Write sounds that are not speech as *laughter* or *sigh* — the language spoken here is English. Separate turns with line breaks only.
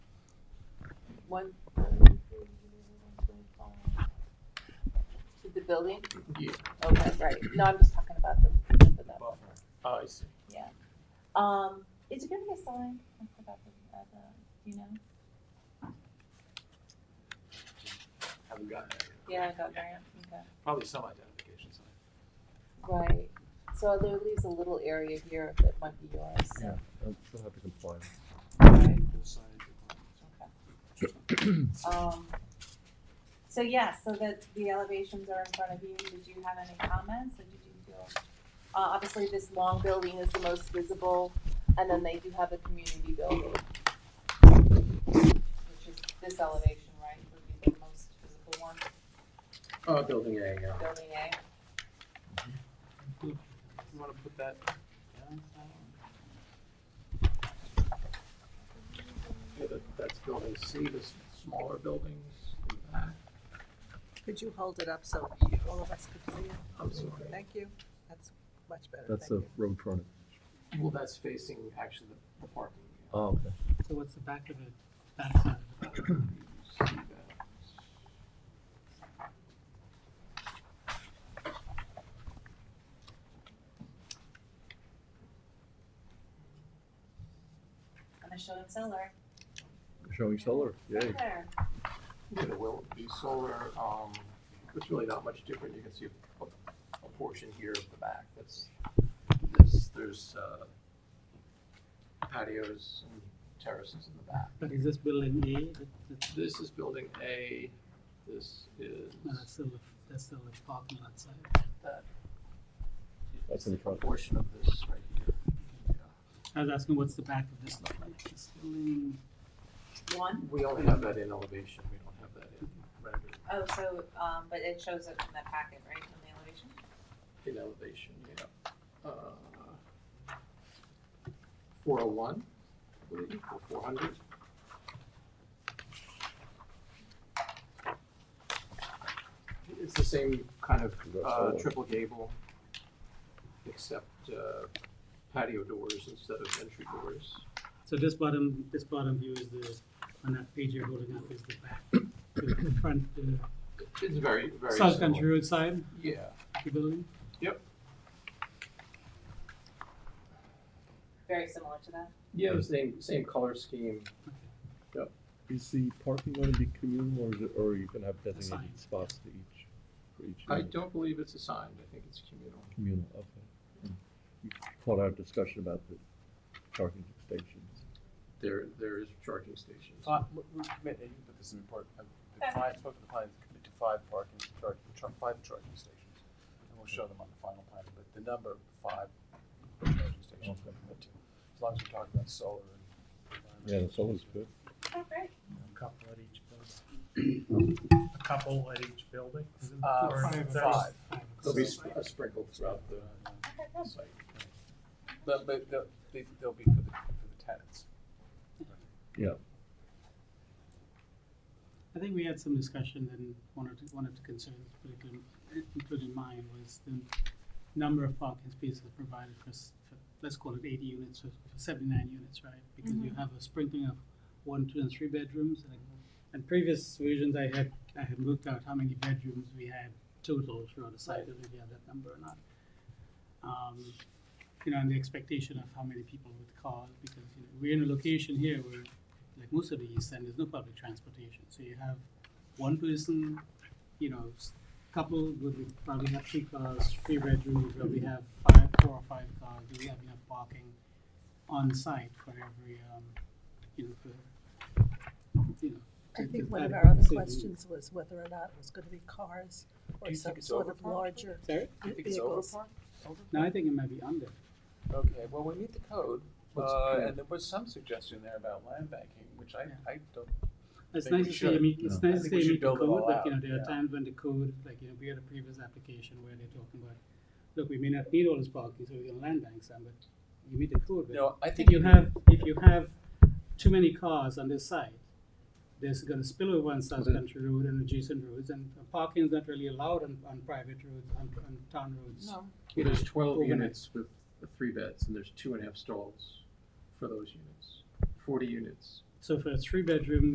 one to the building?
Yeah.
Okay, right, no, I'm just talking about the, the buffer.
Oh, I see.
Um, is it gonna be a sign? I forgot the, uh, the, you know?
Haven't gotten that. yet.
Yeah, I got Graham, okay.
Probably some identification sign.
Right, so there leaves a little area here that might be yours.
Yeah. I'm still have to comply.
Right,
Full signage requirements.
*clears throat* Um, so yeah, so that the elevations are in front of you, did you have any comments, or did you feel? Uh, obviously, this long building is the most visible, and then they do have a community building. Which is this elevation, right, would be the most visible one,
Uh, building A, yeah.
building A,
You wanna put that down? Yeah, that, that's building C, the s- smaller buildings.
Could you hold it up so all of us could see it?
I'm sorry.
Thank you. That's much better.
That's
Thank
a
you.
road frontage.
Well, that's facing actually the, the parking.
Oh, okay.
So what's the back of it, back side of it?
You see
and I showed him solar.
Showing solar, yay.
There.
that. There will be solar, um, it's really not much different. You can see a, a portion here of the back. That's, this, there's, uh, patios and terraces in the back.
But is this building A, that, that's,
This is building A, this is,
no, that's still, a- that's still a parking lot side.
that.
That's in front.
Portion of this right here. Yeah.
I was asking, what's the back of this look like? This building,
One,
We only have that in elevation, we don't have that in rendered,
oh, so, um, but it shows it in that packet, right, in the elevation?
in elevation, yeah. Four oh one, believe, or four hundred. It's the same kind of
You got
uh,
solar.
triple gable, except uh, patio doors instead of entry doors.
so this bottom, this bottom view is the, on that page you're holding up is the back, the front, the
It's very, very
South
similar.
Country Road side,
Yeah,
of the building?
Very similar to that.
yeah, the same, same color scheme.
Is the parking going to be communal or is it, or you can have
Assigned.
designated spots to each, for each?
I
unit?
don't believe it's assigned, I think it's communal.
Communal, okay. Mm. You caught our discussion about the parking stations.
There, there is charging stations.
Five, we we commit, you can put this in report, um, the
Okay.
client, spoke to the client, commit to five parking, charge, char- five charging stations. And we'll show them on the final plan, but the number five charging stations we commit to, as long as we're talking about solar and.
Yeah, that's always good.
Oh, great.
A couple at each building. A couple at each building?
Uh,
Or
five.
there's-
They'll be sp- uh, sprinkled throughout the
Okay, good.
site.
But, but they'll, they- they'll be for the, for the tenants.
Yeah.
I think we had some discussion and one of, the- one of the concerns, particularly, including mine, was the number of parking spaces provided for, s- for, let's call it eighty units or seventy-nine units, right? Because you have a sprinkling of one, two, and three bedrooms, and, and previous versions I had, I had looked out how many bedrooms we had total throughout the site, whether we have that number or not. Um, you know, and the expectation of how many people would call, because, you know, we're in a location here where like most of the east end, there's no public transportation. So you have one person, you know, s- couple would probably have three cars, three bedrooms, probably have five, four or five cars. Do we have enough parking on site for every, um, you know, for, you know?
I
to-
think
to
one of
add
our other
to the-
questions was whether or not it was gonna be cars
Do
or
you
some
think it's
sort of
overparked?
larger
Sorry?
Do you think it's over
vehicles.
park? Over
No, I think it might be under.
Okay, well, we need the code,
What's the
uh,
code?
and there was some suggestion there about land banking, which I,
Yeah.
I don't
It's
Think
nice
we
to say, I
should.
mean, it's
Yeah.
I
nice to
think
say
we should
meet the
build it all
code, but you know,
out,
there are
yeah.
times when the code, like, you know, we had a previous application where they're talking about, look, we may not need all this parking, so we can land bank some, but you meet the code, but
No, I
if
think
you have, if you have too many cars on this side, there's gonna spill over on South
Mhm.
Country Road and adjacent roads, and parking is not really allowed on, on private roads, on, on town roads.
No.
Well, There's twelve
Overnight.
units with uh, three beds, and there's two and a half stalls for those units, forty units.
So for a three-bedroom,